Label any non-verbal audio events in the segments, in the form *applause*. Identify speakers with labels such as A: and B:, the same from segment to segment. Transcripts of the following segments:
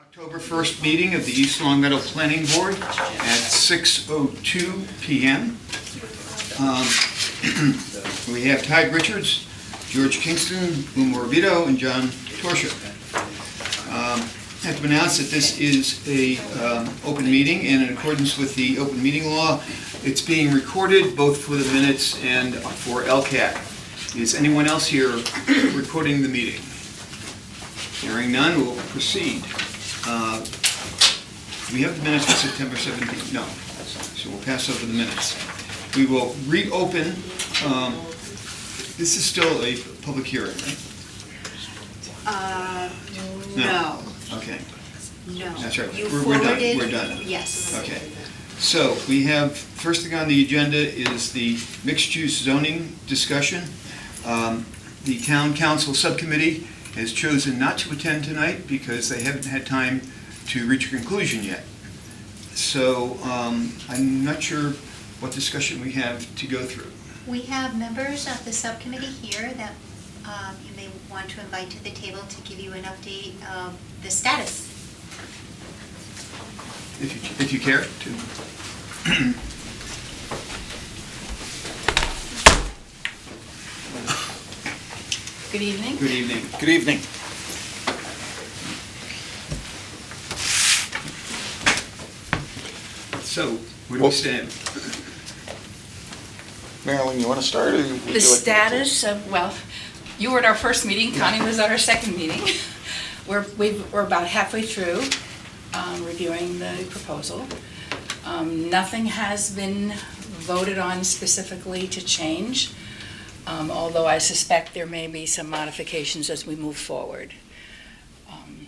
A: October 1st meeting of the East Long Meadow Planning Board at 6:02 PM. Um, *clears throat* We have Ty Richards, George Kingston, Lou Morabito, and John Torsia. Um, I have to announce that this is a um, open meeting, and in accordance with the open meeting law, it's being recorded both for the minutes and for LCAT. Is anyone else here recording the meeting? Hearing none, we'll proceed. Uh, We have the minutes for September 17th, no, so we'll pass over the minutes. We will reopen, um, this is still a public hearing, right?
B: Uh,
A: No.
B: no,
A: Okay,
B: no.
A: That's right.
B: You
A: We're- we're done.
B: forwarded-
A: We're done.
B: Yes.
A: okay. So we have, first thing on the agenda is the mixed-use zoning discussion. Um, The town council subcommittee has chosen not to attend tonight because they haven't had time to reach a conclusion yet. So um, I'm not sure what discussion we have to go through.
C: We have members of the subcommittee here that um, you may want to invite to the table to give you an update of the status.
A: If you, if you care to.
B: Good evening.
A: Good evening.
D: Good evening.
A: So, where do we stand?
D: Marilyn, you want to start, or would you like? me
B: The
D: to?
B: status of, well, you were at our first meeting, Connie was at our second meeting. *laughs* We're, we've- we're about halfway through um, reviewing the proposal. Um, Nothing has been voted on specifically to change, um, although I suspect there may be some modifications as we move forward. Um,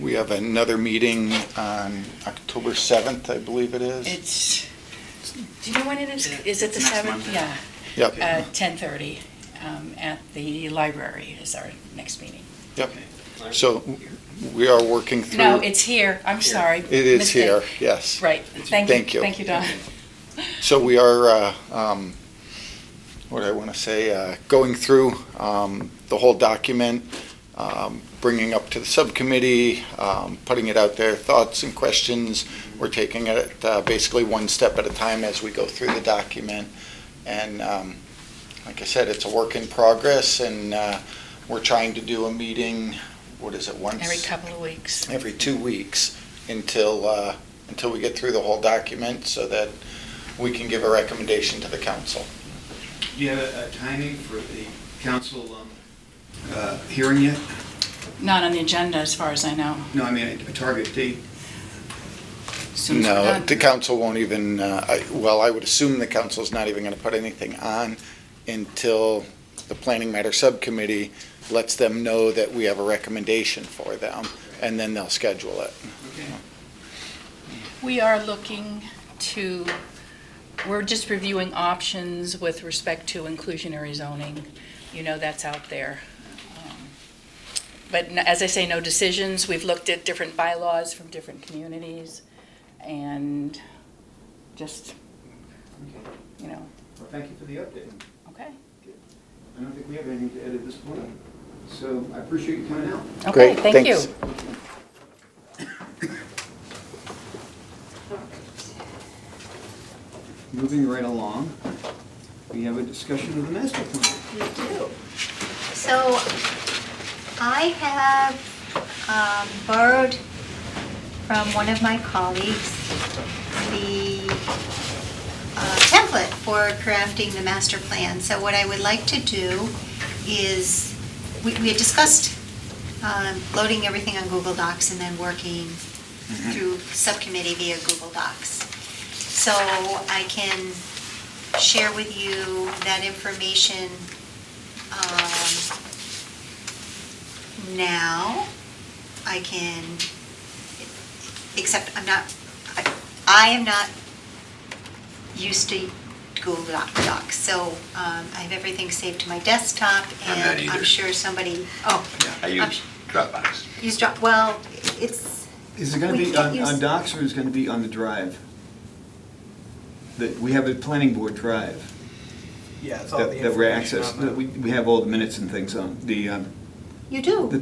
D: We have another meeting on October 7th, I believe it is.
B: It's, do you know when it is? Is it the
E: Next
B: 7th?
E: Monday.
B: Yeah.
D: Yep,
B: Uh, 10:30 um, at the library is our next meeting.
D: yep. So we are working through.
B: No, it's here, I'm sorry.
D: It is
B: Mistake.
D: here, yes.
B: Right, thank you.
D: Thank you.
B: Thank you, Don.
D: So we are, uh, um, what do I want to say, uh, going through um, the whole document, um, bringing up to the subcommittee, um, putting it out there, thoughts and questions. We're taking it uh, basically one step at a time as we go through the document. And um, like I said, it's a work in progress, and uh, we're trying to do a meeting, what is it, once?
B: Every couple of weeks.
D: every two weeks until, uh, until we get through the whole document so that we can give a recommendation to the council.
A: Do you have a a timing for the council um, uh, hearing yet?
B: Not on the agenda, as far as I know.
A: No, I mean, a a target date?
B: Soon as we're
D: No,
B: done.
D: the council won't even, uh, I- well, I would assume the council's not even going to put anything on until the Planning Matter Subcommittee lets them know that we have a recommendation for them, and then they'll schedule it.
A: Okay.
B: We are looking to, we're just reviewing options with respect to inclusionary zoning. You know, that's out there. Um, But n- as I say, no decisions. We've looked at different bylaws from different communities and just, you know,
A: Well, thank you for the update.
B: okay.
A: I don't think we have anything to add at this point, so I appreciate you coming out.
B: Okay,
D: Great,
B: thank you.
D: thanks.
A: Moving right along, we have a discussion of the master plan.
C: We do. So I have um, borrowed from one of my colleagues the uh, template for crafting the master plan. So what I would like to do is, we we had discussed um, loading everything on Google Docs and then working
E: Mm-hmm.
C: through subcommittee via Google Docs. So I can share with you that information um, now. I can, except I'm not, I- I am not used to Google Doc- Docs, so um, I have everything saved to my desktop,
E: I'm not
C: and I'm
E: either.
C: sure somebody, oh.
E: I
C: I'm
E: use Dropbox.
C: Use Dropbox, well, it's,
A: Is it going to
C: We
A: be
C: can't
A: on
C: use-
A: on docs or is it going to be on the drive? That, we have a planning board drive
F: Yeah, it's all the
A: that that we're
F: information on
A: accessed,
F: the-
A: that we we have all the minutes and things on, the, um,
C: you do.
A: The